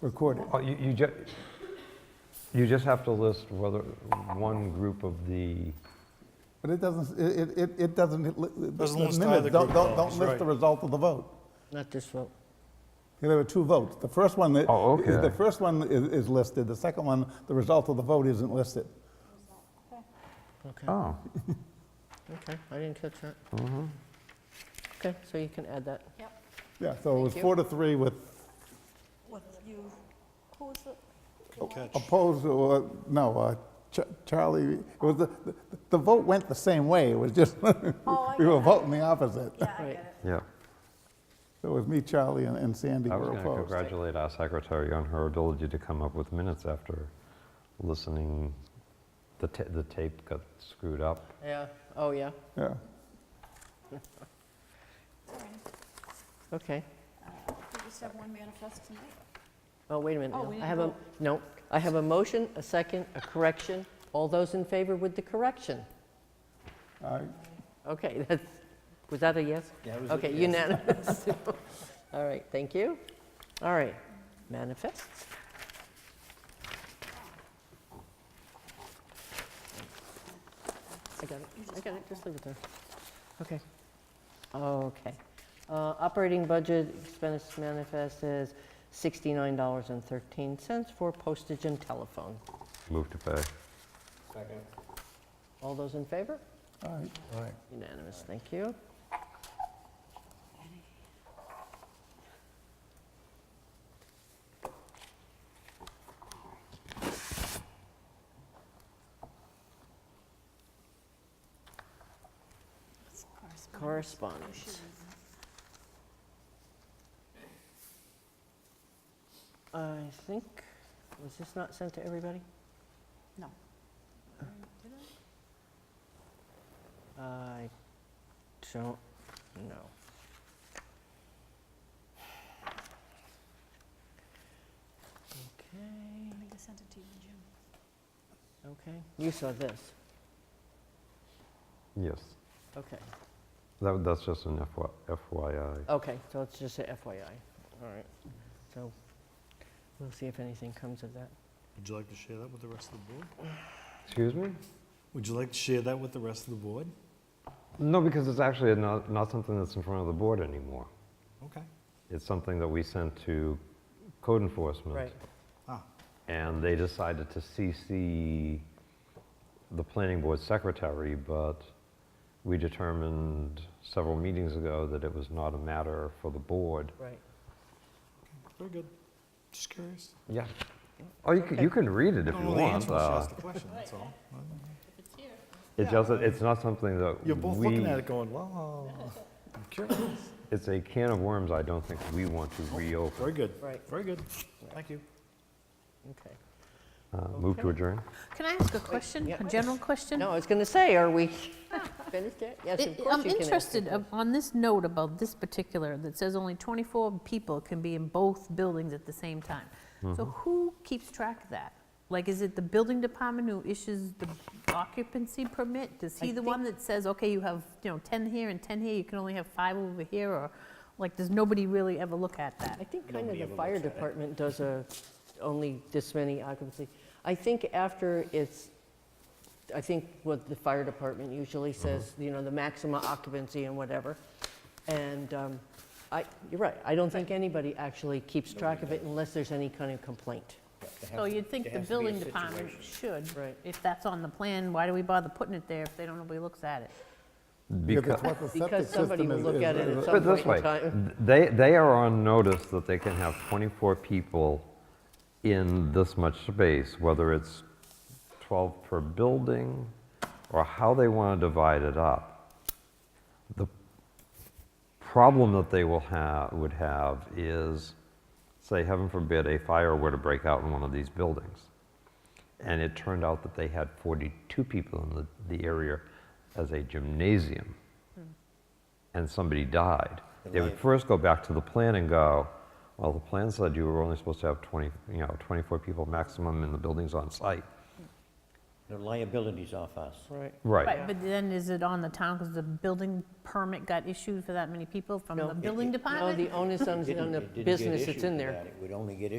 recorded. Well, Oh, You, you just, you just have to list whether, one group of the, But it doesn't, it, it- it, it doesn't, the Doesn't list minutes either don't, group, don't, don't though, that's list the right. result of the vote. Not this vote. There were two votes. The first one, that- Oh, is- the okay. first one is, is listed, the second one, the result of the vote isn't listed. Okay, oh, okay, I didn't catch that. Okay, so you can add that. Yep, Yeah, so it was Thank you. four to three with what you, who's the? Good catch. opposed, or, no, uh, Ch- Charlie, it was, the, the- the vote went the same way, it was just, Oh, I we got were it. voting the opposite. Yeah, I Right. get it. yeah. It was me, Charlie, and- and Sandy I was were going to opposed. congratulate our secretary on her ability to come up with minutes after listening, the ta- the tape got screwed up. Yeah, oh, yeah, Yeah, All right. okay. Uh, We just have one manifest tonight. Oh, wait a minute Oh, now. we I didn't have a, vote. no, I have a motion, a second, a correction. All those in favor with the correction? all right. Okay, that's, was that a yes? Yeah, it was a Okay, yes. unanimous. All right, thank you. All right, manifests. I got it, I got it, just leave it there. Okay. Okay. Uh, Operating budget expense manifest is $69.13 for postage and telephone. Move to pay. All those in favor? All right. Unanimous, thank you. It's correspondence. Correspondence. I think, was this not sent to everybody? No. I don't know. I Okay, think I sent it to you in June. okay. You saw this, Yes, okay. that, that's just an FYI. Okay, so it's just a FYI. All right. So we'll see if anything comes of that. Would you like to share that with the rest of the board? Excuse me? Would you like to share that with the rest of the board? No, because it's actually not, not something that's in front of the board anymore. Okay. It's something that we sent to code enforcement. Right. Ah, And they decided to CC the planning board secretary, but we determined several meetings ago that it was not a matter for the board. Right. very good. Just curious. Yeah. Oh, you can, you can read it if Don't you know the want. answer when she uh, asks the question, that's all. It doesn't, it's not something that You're both looking we- at it going, wow. I'm curious. It's a can of worms I don't think we want to reopen. Very good. Right. Very good. Thank you. Okay. Uh, Move to Okay. adjourn? Can I ask a question, yeah. a general question? No, I was going to say, are we finished yet? Yes, It- of course you I'm can ask interested it. ab- on this note about this particular, that says only 24 people can be in both buildings at the same time. Mm-hmm. So who keeps track of that? Like, is it the building department who issues the occupancy permit? Is I he the one that says, okay, you have, you know, 10 here and 10 here, you can only have five over here? Or, like, does nobody really ever look at that? I think kind of the fire department does a, only this many occupancy. I think after it's, I think what the fire department usually Uh-huh. says, you know, the maximum occupancy and whatever. And um, I, you're right, I don't think anybody actually keeps track of it unless there's any kind of complaint. So you'd think the building department should. Right. If that's on the plan, why do we bother putting it there if they don't, nobody looks at it? Because it's Beca- what the septic Because somebody system will is- look is- at it is- at some But point this in way, time. th- they, they are on notice that they can have 24 people in this much space, whether it's 12 per building or how they want to divide it up. The problem that they will have, would have is, say, heaven forbid, a fire were to break out in one of these buildings. And it turned out that they had 42 people in the, the area as a gymnasium and somebody died, they would first go back to the plan and go, well, the plan said you were only supposed to have 20, you know, 24 people maximum in the buildings on site. The liability's off us. Right. Right, but then is it on the town because the building permit got issued for that many people from No. the building No, department? the onus on It didn't- on the it didn't get business issued that's in for there. that. It would only get